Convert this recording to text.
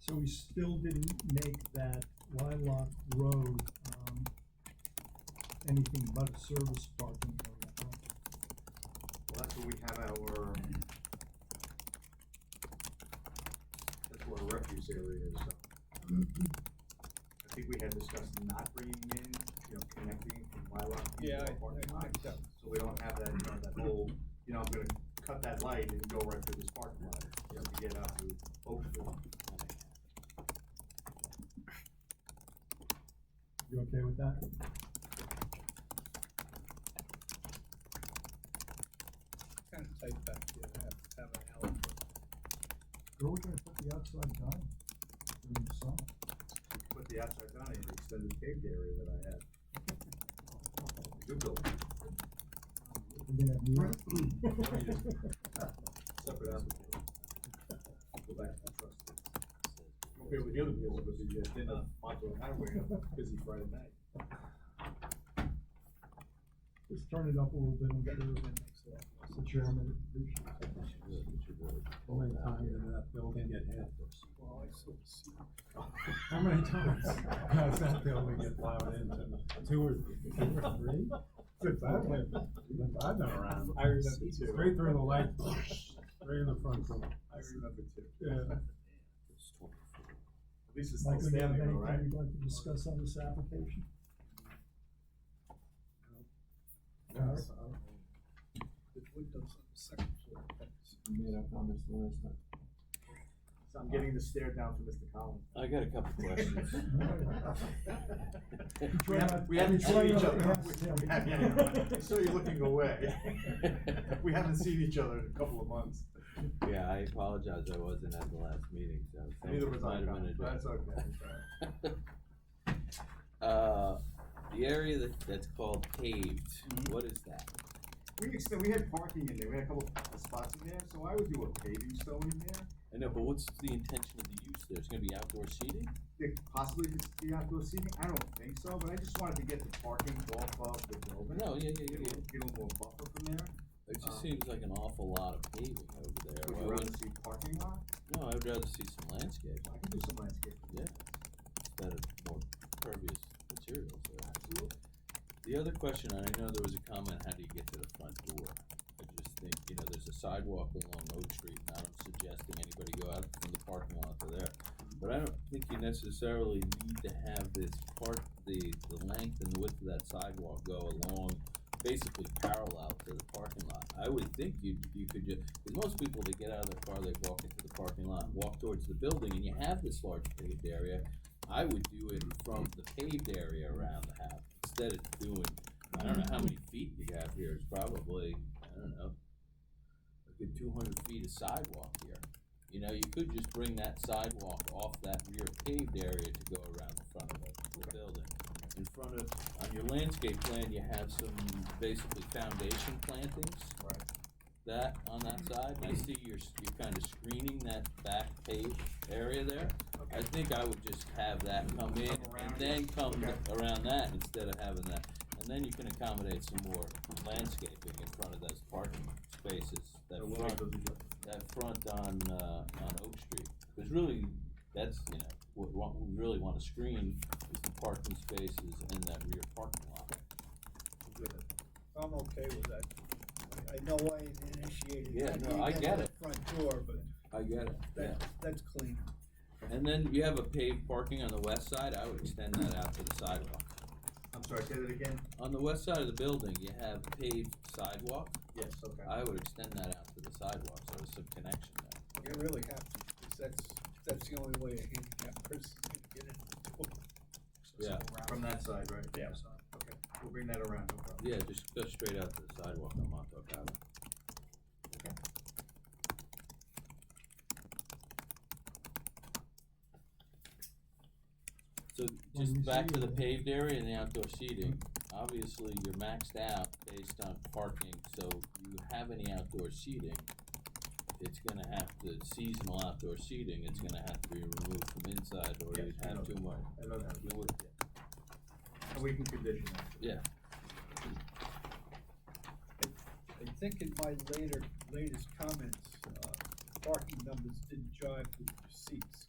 So we still didn't make that Lilac Road, um, anything but a service parking area, huh? Well, that's where we have our. That's where our refuse area is, so. Mm-hmm. I think we had discussed not bringing in, you know, connecting from Lilac. to Yeah, I- our parking I think lots, so. we don't have that, you know, that whole, you know, I'm gonna cut that light and go right through this parking lot, you know, to get out to Oakville. You okay with that? Kind of tight back here, to have, have an alley. Where we're gonna put the outside dining during the summer? Put the outside down in the extended paved area that I had. Good building, We're gonna have new. separate application. Go back to the trust. Okay, with the other people, but the, uh, then, uh, Montauk Highway, uh, busy Friday night. Just turn it up a little bit, I'm Better sure than next to that. the chairman appreciates it. How many times did that building get hit? Well, I sort of see. How many times does that building get plowed into? Two or, two or three? Since I've lived, since I've been around. I remember too. Straight through the light, right in the front door. I remember too. At Yeah. least it's still Mike, do you have standing, all anything right? you'd like to discuss on this application? Yes, The windows on the second floor. that's- I made up on this last time. So I'm getting the stare down from Mr. Collins. I got a couple questions. We haven't, we haven't Try seen each not other. to ask We- we him. haven't- I saw you looking away. We haven't seen each other in a couple of months. Yeah, I apologize, I wasn't at the last meeting, so. thanks Neither for was I, reminding me Colin. to That's do it. okay, that's all right. Uh, the area that, that's called paved, what is that? We extend, we had parking in there, we had a couple of spots in there, so I would do a paving stone in there. I know, but what's the intention of the use there? It's gonna be outdoor seating? There possibly could be outdoor seating, I don't think so, but I just wanted to get the parking off of the building. Oh, No, yeah, yeah, Get a yeah, yeah. Uh-huh. little, get a little buffer from there. It Um, just seems like an awful lot of paving over there. Would Why you rather wouldn't- see parking lot? No, I'd rather see some landscape I can do some landscaping. Yeah. instead of more pervious materials there. Absolutely. The other question, and I know there was a comment, how do you get to the front door? I just think, you know, there's a sidewalk along Oak Street, and I'm suggesting anybody go out from the parking lot to there. But I don't think you necessarily need to have this part, the, the length and the width of that sidewalk go along, basically parallel to the parking lot. I would think you, you could just, because most people, they get out of their car, they walk into the parking lot, walk towards the building, and you have this large paved area. I would do it from the paved area around the house, instead of doing, I don't know how many feet you have here, it's probably, I don't know, a good two hundred feet of sidewalk here. You know, you could just bring that sidewalk off that rear paved area to go around the front of the- the building. In front of, on your landscape plan, you have some basically foundation plantings. Right. That, on that side, and I see you're, s- you're kind of screening that back paved area there. I think I would just have that come in Come around and then come Okay. around that instead of having that. And then you can accommodate some more landscaping in front of those parking spaces, that So we'll make front, those adjustments. that front on, uh, on Oak Street. Cause really, that's, you know, what, what we really wanna screen is the parking spaces and that rear parking lot. We'll do that. I'm okay with that. I- I know I initiated. Yeah, how do no, you I to get the it. Front door, but I get it, yeah. that's, that's clean. And then you have a paved parking on the west side, I would extend that out to the sidewalk. I'm sorry, say that again? On the west side of the building, you have paved sidewalk, Yes, okay. I would extend that out to the sidewalk, so there's some connection there. You really have to, because that's, that's the only way a handicapped person can get in the door. Yeah. From that side, right? Yeah. Okay, we'll bring that around, no problem. Yeah, just go straight out to the sidewalk on Montauk Avenue. So When we just back to see the it. paved area and the outdoor seating, obviously you're maxed out based on parking, so you have any outdoor seating, it's gonna have to, seasonal outdoor seating, it's gonna have to be removed from inside or Yes, you'd we know have too much. I know that. You would, And we can condition that. yeah, I think in my later, latest comments, uh, parking numbers didn't jive with receipts.